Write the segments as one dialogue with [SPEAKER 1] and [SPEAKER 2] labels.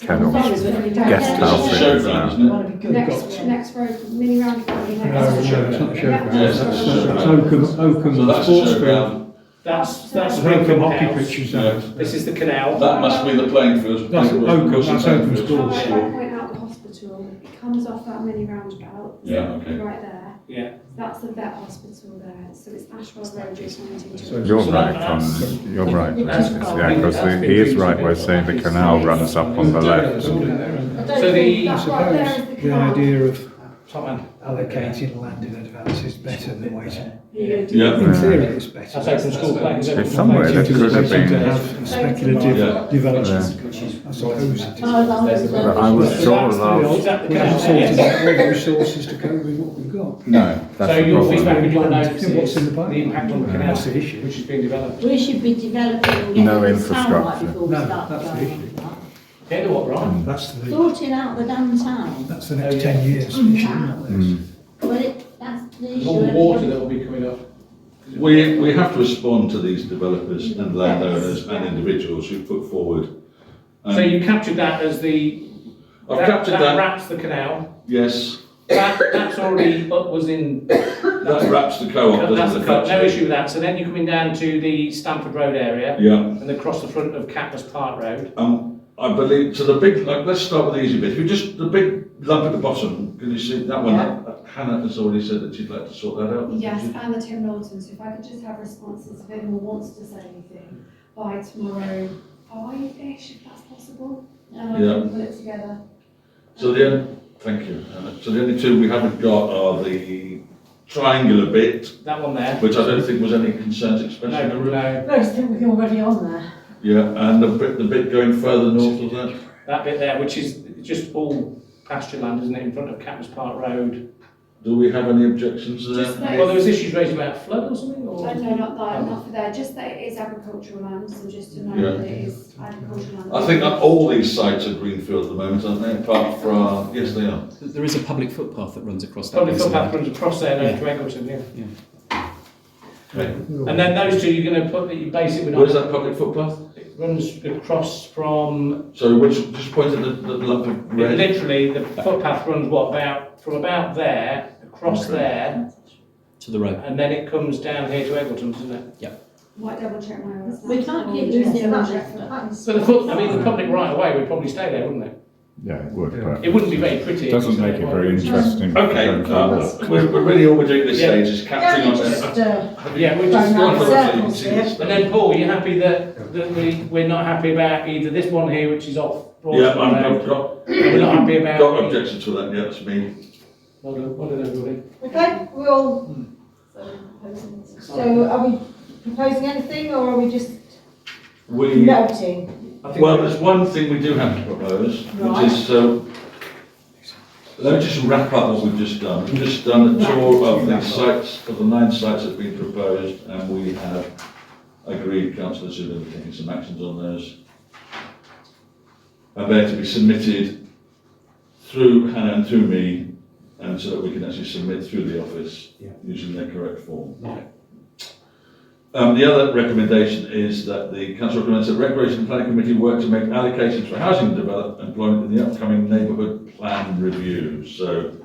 [SPEAKER 1] Carry on.
[SPEAKER 2] Thing is, when every time-
[SPEAKER 1] Guest
[SPEAKER 3] It's
[SPEAKER 1] house.
[SPEAKER 3] just a show ground, isn't it?
[SPEAKER 2] Wanna be good
[SPEAKER 4] Next,
[SPEAKER 2] doctor.
[SPEAKER 4] next road, mini round, probably
[SPEAKER 5] No,
[SPEAKER 4] next.
[SPEAKER 5] no, it's not showground.
[SPEAKER 3] Yes, it's
[SPEAKER 5] That's that's
[SPEAKER 3] showground.
[SPEAKER 5] Oakham,
[SPEAKER 3] So
[SPEAKER 5] Oakham
[SPEAKER 3] that's a
[SPEAKER 5] Sports
[SPEAKER 3] show
[SPEAKER 5] Field.
[SPEAKER 3] ground.
[SPEAKER 6] That's, that's
[SPEAKER 5] That's
[SPEAKER 6] Oakham
[SPEAKER 5] Oakham Hockey
[SPEAKER 6] House.
[SPEAKER 5] Pitch is
[SPEAKER 3] Yeah.
[SPEAKER 5] that.
[SPEAKER 6] This is the canal.
[SPEAKER 3] That must be the playing field.
[SPEAKER 5] That's Oakham, that's Oakham
[SPEAKER 4] How
[SPEAKER 5] School.
[SPEAKER 4] I went out the hospital, it comes off that mini roundabout.
[SPEAKER 3] Yeah, okay.
[SPEAKER 4] Right there.
[SPEAKER 6] Yeah.
[SPEAKER 4] That's the vet hospital there, so it's Ashwell Road, just wanting
[SPEAKER 5] So-
[SPEAKER 4] to.
[SPEAKER 1] You're
[SPEAKER 6] So
[SPEAKER 1] right,
[SPEAKER 6] that-
[SPEAKER 1] on, you're right,
[SPEAKER 2] that's-
[SPEAKER 1] Alexis, yeah, because
[SPEAKER 2] that's
[SPEAKER 1] he is
[SPEAKER 2] been
[SPEAKER 1] right by
[SPEAKER 2] reasonable.
[SPEAKER 1] saying the canal runs up on the
[SPEAKER 5] It's
[SPEAKER 1] left.
[SPEAKER 5] all in there, isn't it?
[SPEAKER 6] So the-
[SPEAKER 4] That right there is the
[SPEAKER 5] E The
[SPEAKER 4] canal.
[SPEAKER 5] idea of
[SPEAKER 6] Tottenham.
[SPEAKER 5] allocating land in advance is better than waiting.
[SPEAKER 4] Yeah.
[SPEAKER 3] Yeah.
[SPEAKER 5] In theory, it's better.
[SPEAKER 6] That's Oakham School Play. is it?
[SPEAKER 1] It's somewhere that could have
[SPEAKER 5] To
[SPEAKER 1] been,
[SPEAKER 5] have speculative developments, I suppose it is.
[SPEAKER 2] Oh, as long as
[SPEAKER 1] but I was
[SPEAKER 2] the-
[SPEAKER 1] sure
[SPEAKER 6] that's the
[SPEAKER 1] last,
[SPEAKER 6] old- that the
[SPEAKER 5] We
[SPEAKER 6] canal?
[SPEAKER 5] have sorted
[SPEAKER 6] Yes.
[SPEAKER 5] out all the resources to cope with what we've got.
[SPEAKER 1] no,
[SPEAKER 6] So
[SPEAKER 1] that's the
[SPEAKER 6] your feedback
[SPEAKER 1] problem.
[SPEAKER 6] with your
[SPEAKER 5] Yeah,
[SPEAKER 6] notice
[SPEAKER 5] what's
[SPEAKER 6] is
[SPEAKER 5] in the
[SPEAKER 6] the
[SPEAKER 5] pipeline?
[SPEAKER 6] impact on the
[SPEAKER 5] Yeah.
[SPEAKER 6] canal,
[SPEAKER 5] That's the
[SPEAKER 6] which
[SPEAKER 5] issue.
[SPEAKER 6] is being developed.
[SPEAKER 2] We should be developing and getting
[SPEAKER 1] No
[SPEAKER 2] this somewhat
[SPEAKER 1] infrastructure.
[SPEAKER 2] before we
[SPEAKER 5] No,
[SPEAKER 2] start
[SPEAKER 5] that's the
[SPEAKER 2] going
[SPEAKER 5] issue.
[SPEAKER 2] like
[SPEAKER 6] Yeah, do what, right?
[SPEAKER 5] That's
[SPEAKER 2] that.
[SPEAKER 5] the,
[SPEAKER 2] Sorting out the downtown,
[SPEAKER 5] that's the next ten years. issue.
[SPEAKER 2] well, it, that's the issue.
[SPEAKER 6] All the water that will be coming up.
[SPEAKER 3] We, we have to respond to these developers and landowners and individuals who put forward.
[SPEAKER 6] So
[SPEAKER 3] Um,
[SPEAKER 6] you captured that as the,
[SPEAKER 3] I've
[SPEAKER 6] that-
[SPEAKER 3] captured
[SPEAKER 6] That
[SPEAKER 3] that,
[SPEAKER 6] wraps the canal.
[SPEAKER 3] yes,
[SPEAKER 6] That, that's already, up was in
[SPEAKER 3] Oh, that wraps the co-op,
[SPEAKER 6] That's
[SPEAKER 3] doesn't it?
[SPEAKER 6] the cut, no issue with that. So then you're coming down to the Stamford Road area
[SPEAKER 3] Yeah,
[SPEAKER 6] and across the front of Catmas Park Road.
[SPEAKER 3] um, I believe, so the big, like, let's start with the easy bit, you just, the big lump at the bottom, can you see that one?
[SPEAKER 6] Yeah.
[SPEAKER 3] Uh, Hannah has already said that she'd like to sort that out.
[SPEAKER 4] Yes, and the Tim Knowltons, if I could just have responses if anyone wants to say anything by tomorrow, five-ish, if that's possible, and I
[SPEAKER 3] Yeah.
[SPEAKER 4] can put it together.
[SPEAKER 3] So the, on- thank you, Hannah. So the only two we haven't got are the triangular bit,
[SPEAKER 6] That one there.
[SPEAKER 3] which I don't think was any concerns
[SPEAKER 6] No,
[SPEAKER 3] expressed in the room.
[SPEAKER 6] no,
[SPEAKER 2] No, it's already on there.
[SPEAKER 3] Yeah, and the bit, the bit going further north of that?
[SPEAKER 6] that bit there, which is just all pasture land, isn't it, in front of Catmas Park Road?
[SPEAKER 3] Do we have any objections to
[SPEAKER 4] Just
[SPEAKER 3] that?
[SPEAKER 4] that,
[SPEAKER 6] Well, there was issues raised about flood or something,
[SPEAKER 4] uh,
[SPEAKER 6] or?
[SPEAKER 4] no, not that, not for there, just that it is agricultural land, so just to
[SPEAKER 3] Yeah.
[SPEAKER 4] know that it is agricultural land.
[SPEAKER 3] I think that all these sites are greenfield at the moment, aren't they, apart from, yes, they are.
[SPEAKER 7] There is a public footpath that runs across that.
[SPEAKER 6] Probably
[SPEAKER 7] reservoir.
[SPEAKER 6] footpath runs across there, no, to Eggleton, yeah.
[SPEAKER 3] Okay.
[SPEAKER 6] And then those two, you're gonna put, you base it with.
[SPEAKER 3] Where's that public footpath?
[SPEAKER 6] It runs across from,
[SPEAKER 3] So which, just point at the, the lump of red.
[SPEAKER 6] literally, the footpath runs what, about, from about there, across
[SPEAKER 3] Okay.
[SPEAKER 6] there,
[SPEAKER 7] To the road.
[SPEAKER 6] and then it comes down here to Eggleton, doesn't it?
[SPEAKER 4] Might double check my hours.
[SPEAKER 2] We can't keep
[SPEAKER 4] Yeah,
[SPEAKER 2] losing
[SPEAKER 4] double
[SPEAKER 2] land.
[SPEAKER 4] check for that.
[SPEAKER 6] But the pub, I mean, the public right away would probably stay there, wouldn't it?
[SPEAKER 1] yeah, it would,
[SPEAKER 6] It
[SPEAKER 1] but
[SPEAKER 6] wouldn't be very pretty. if you
[SPEAKER 1] doesn't
[SPEAKER 6] stayed
[SPEAKER 1] make it
[SPEAKER 6] away.
[SPEAKER 1] very interesting. if you
[SPEAKER 3] Okay,
[SPEAKER 1] don't keep
[SPEAKER 3] um, we're, we're really all we're doing this
[SPEAKER 6] Yeah.
[SPEAKER 3] stage is capturing
[SPEAKER 2] Yeah,
[SPEAKER 3] on
[SPEAKER 2] just,
[SPEAKER 3] that.
[SPEAKER 2] uh,
[SPEAKER 6] Yeah, we're
[SPEAKER 2] Right,
[SPEAKER 6] just.
[SPEAKER 2] now,
[SPEAKER 3] I've
[SPEAKER 2] yeah.
[SPEAKER 3] got to see this
[SPEAKER 6] And
[SPEAKER 3] now.
[SPEAKER 6] then Paul, you happy that, that we, we're not happy about either this one here, which is off Broad
[SPEAKER 3] Yeah,
[SPEAKER 6] Street
[SPEAKER 3] I'm, I've
[SPEAKER 6] Road?
[SPEAKER 3] got,
[SPEAKER 6] We're not happy about.
[SPEAKER 3] got
[SPEAKER 6] the-
[SPEAKER 3] objections to that, yeah, that's me.
[SPEAKER 6] Well done, well done, everybody.
[SPEAKER 8] Okay, we're all, so are we proposing anything or are we just
[SPEAKER 3] We.
[SPEAKER 8] noting?
[SPEAKER 6] I think
[SPEAKER 3] Well, there's one thing we do have to propose, which is, so, let me just wrap up what we've just done. We've just done a tour of the sites, of the nine sites that have been proposed, and we have agreed, councillors, who are taking some actions on those. And they're to be submitted through Hannah and through me, and so that we can actually submit through the office using their correct form. Um, the other recommendation is that the council recommends that Recreation Planning Committee work to make allocations for housing development employment in the upcoming neighbourhood plan review. So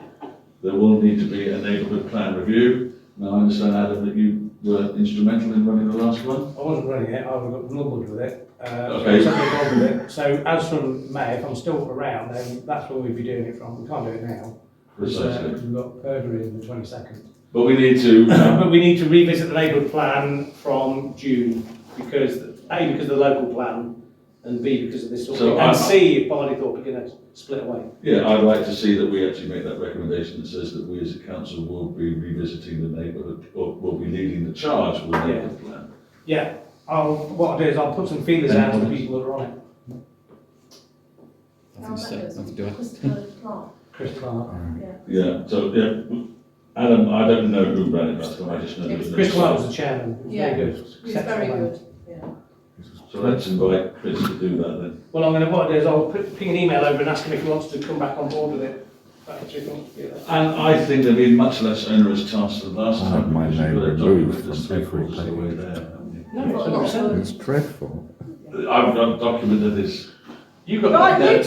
[SPEAKER 3] there will need to be a neighbourhood plan review. Now, I understand, Adam, that you were instrumental in running the last one.
[SPEAKER 9] I wasn't running it, I got lumbered with it. Uh, so
[SPEAKER 3] Okay.
[SPEAKER 9] something wrong with it. So as from May, if I'm still around, then that's where we'd be doing it from. We can't do it now. Uh,
[SPEAKER 3] Precisely.
[SPEAKER 9] We've got Purbury in the twenty-second.
[SPEAKER 3] But we need to,
[SPEAKER 6] But we need to revisit the neighbourhood plan from June, because, A, because of the local plan, and B, because of this sort of,
[SPEAKER 3] So
[SPEAKER 6] thing.
[SPEAKER 3] I'm-
[SPEAKER 6] and C, if Barleythorpe are gonna split away.
[SPEAKER 3] yeah, I'd like to see that we actually make that recommendation that says that we as a council will be revisiting the neighbourhood, or will be leading the charge with the neighbourhood plan.
[SPEAKER 9] Yeah, I'll, what I'll do is I'll put some feelers out to the people that are on it.
[SPEAKER 7] Nothing to say, nothing to add.
[SPEAKER 8] uh,
[SPEAKER 9] Chris Clark.
[SPEAKER 3] Yeah, so, yeah, Adam, I don't know who ran it last time, I just know that. it was-
[SPEAKER 9] Chris Clark was the chairman. He was
[SPEAKER 2] Yeah.
[SPEAKER 9] Very good.
[SPEAKER 2] It's very good, yeah.
[SPEAKER 3] So let's invite Chris to do that then.
[SPEAKER 6] Well, I'm gonna, what I'll do is I'll put- ping an email over and ask him if he wants to come back on board with it. Back to you, yeah.
[SPEAKER 3] And I think there'll be much less onerous tasks than last
[SPEAKER 1] I
[SPEAKER 3] time.
[SPEAKER 1] had my
[SPEAKER 3] because you've
[SPEAKER 1] name
[SPEAKER 3] got a
[SPEAKER 1] removed
[SPEAKER 3] document that's
[SPEAKER 1] from
[SPEAKER 3] three quarters of the way
[SPEAKER 1] every
[SPEAKER 3] there, haven't
[SPEAKER 6] No, it's
[SPEAKER 1] going. It's dreadful.
[SPEAKER 3] you? I've, I've documented this
[SPEAKER 6] You've got that
[SPEAKER 8] Right, you
[SPEAKER 6] there.